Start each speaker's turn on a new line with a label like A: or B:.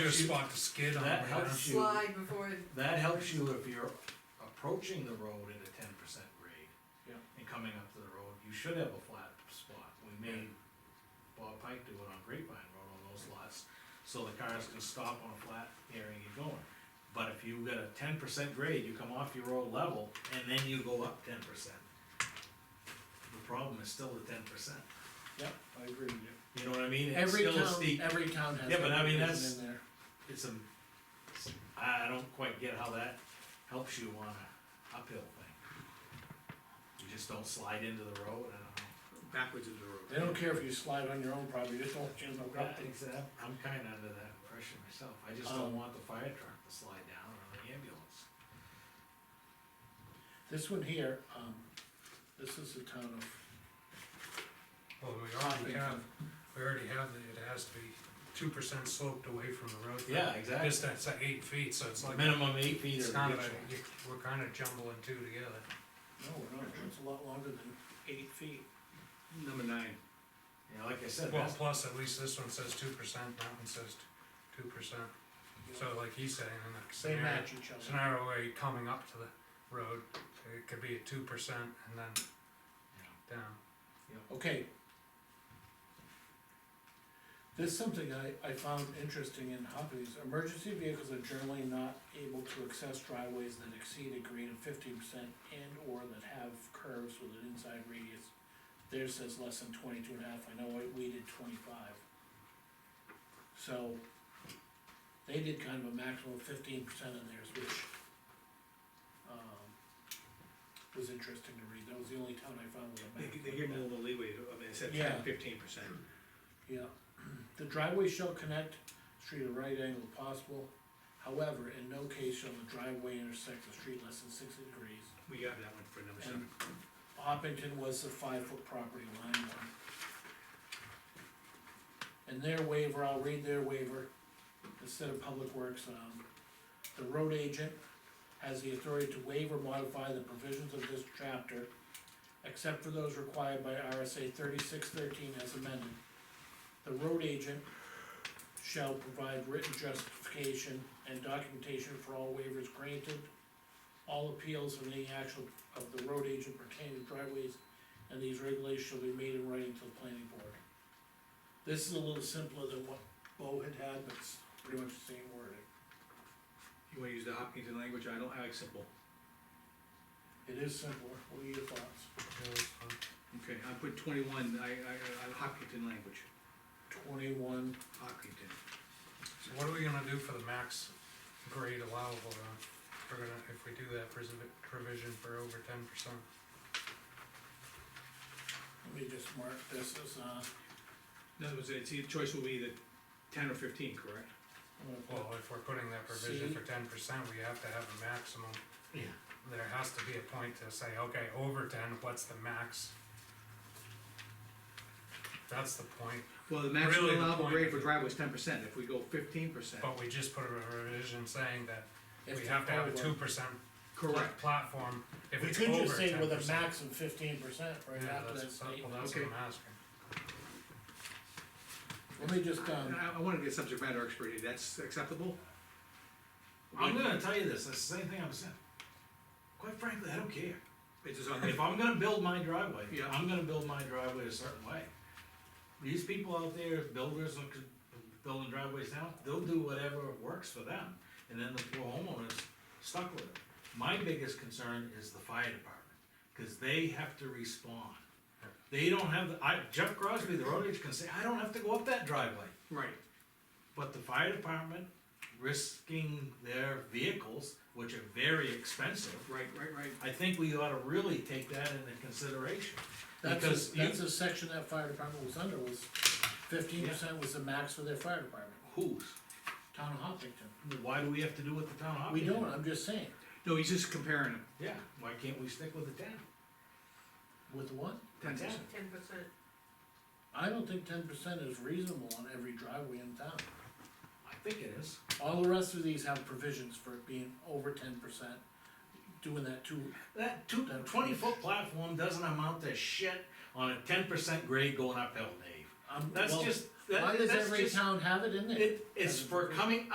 A: good
B: helps you,
A: spot to skid on.
B: that
A: right?
B: helps you,
C: slide before, it-
B: that helps you if you're approaching the road at a ten percent grade.
D: Yeah.
B: And coming up to the road, you should have a flat spot, we made Bob Pike do it on Grapevine Road on those lots, so the cars can stop on a flat area and get going. But if you got a ten percent grade, you come off your road level, and then you go up ten percent. The problem is still the ten percent,
D: Yep, I agree with you.
B: you know what I mean? It's
D: Every
B: still a
D: town,
B: steep-
D: every town has.
B: Yeah, but I mean,
D: that
B: that's-
D: in there.
B: it's a, it's- I I don't quite get how that helps you on a uphill thing. You just don't slide into the road, I
E: backwards into the road.
D: They don't care if you slide on your own property, just don't jam
B: don't
D: up.
B: know. I- I'm kinda under that impression myself, I just don't
D: Um,
B: want the fire truck to slide down or the ambulance.
D: This one here, um, this is the town of,
A: Well, we already have, we already have, the- it has to be two percent sloped away from the road.
B: Yeah, exactly.
A: Just that's like eight feet, so it's like,
B: Minimum eight feet
A: it's
B: or.
A: kind of,
B: additional.
A: a- you- we're kind of jumbling two together.
D: no, we're not, it's a lot longer than eight feet.
E: Number nine,
B: You know, like I said,
A: Well,
B: that's,
A: plus at least this one says two percent, that one says two percent. So like he's saying, in the
D: They
A: scenario,
D: match each other.
A: scenario where you're coming up to the road, it could be at two percent and then
B: you know,
A: down.
D: Okay. There's something I, I found interesting in Hopkins, emergency vehicles are generally not able to access driveways that exceed a grade of fifteen percent and or that have curves with an inside radius. Theirs says less than twenty-two and a half, I know I- we did twenty-five. So, they did kind of a maximum of fifteen percent in theirs, which, um, was interesting to read, that was the only town I found with a
E: they,
D: maximum.
E: they give them a little leeway, to- I mean, it said
D: Yeah.
E: ten, fifteen percent.
D: Yeah, the driveway shall connect street at a right angle if possible, however, in no case shall the driveway intersect the street less than sixty degrees.
E: We got that one for number
D: And
E: seven.
D: Hoppington was the five foot property line one. And their waiver, I'll read their waiver, instead of public works, um, the road agent has the authority to waive or modify the provisions of this chapter, except for those required by RSA thirty-six thirteen as amended. The road agent shall provide written justification and documentation for all waivers granted, all appeals and any action of the road agent pertaining to driveways, and these regulations shall be made in writing to the planning board. This is a little simpler than what Bo had had, but it's pretty much the same wording.
E: You wanna use the Hopkinton language, I don't, I like simple.
D: It is simpler, what are your thoughts?
E: Okay, I put twenty-one, I, I, I, Hopkinton language,
D: Twenty-one,
E: Hopkinton.
A: So what are we gonna do for the max grade allowable then? We're gonna, if we do that provis- provision for over ten percent,
D: let me just mark this as, uh,
E: In other words, it's, your choice will be the ten or fifteen, correct?
D: I'm gonna
A: well,
D: put
A: if we're putting that provision
D: See?
A: for ten percent, we have to have a maximum.
B: Yeah.
A: There has to be a point to say, okay, over ten, what's the max? That's the point,
E: Well, the
A: Really,
E: maximum
A: the
E: allowable
A: point Oh,
E: grade for
A: is-
E: driveway is ten percent, if we go fifteen percent.
A: but we just put a revision saying that
D: if
A: we have to have a
D: over-
A: two percent
E: Correct,
A: platform if
D: We
A: it's
D: could
A: over
D: just say
A: ten
D: with a
A: percent.
D: max of fifteen percent right
A: Yeah,
D: after that
A: that's, well,
D: statement.
A: that's what
E: Okay.
A: I'm asking.
D: Let me just, um,
E: And I, I wanna get subject matter expert here, that's acceptable?
B: I'm gonna tell you this, that's the same thing I'm saying. Quite frankly, I don't care.
E: It's just on,
B: If I'm gonna build my driveway,
E: Yeah.
B: I'm gonna build my driveway a certain way. These people out there, builders, and con- building driveways now, they'll do whatever works for them, and then the poor homeowner's stuck with it. My biggest concern is the fire department, cause they have to respond. They don't have, the I, Jeff Crosby, the road agent can say, I don't have to go up that driveway.
E: right,
B: But the fire department risking their vehicles, which are very expensive,
E: right, right, right.
B: I think we ought to really take that into consideration.
D: That's,
B: Because
D: a- that's
B: you,
D: a section that fire department was under, was fifteen percent was the max for their fire department,
B: who's,
D: town of Hopkinton.
B: why do we have to do what the town office?
D: We don't, I'm just saying,
E: No, he's just comparing them,
B: Yeah, why can't we stick with the town?
D: with what?
E: ten percent.
C: ten percent,
D: I don't think ten percent is reasonable on every driveway in town.
B: I think it is.
D: All the rest of these have provisions for it being over ten percent, doing that too.
B: That two,
D: Don't-
B: twenty-foot platform doesn't amount to shit on a ten percent grade going uphill, Dave.
D: um,
B: That's
D: well,
B: just,
D: Why
B: that,
D: does
B: that's
D: every
B: just,
D: town have it in there?
B: it, it's
D: As a
B: for
D: provision?
B: coming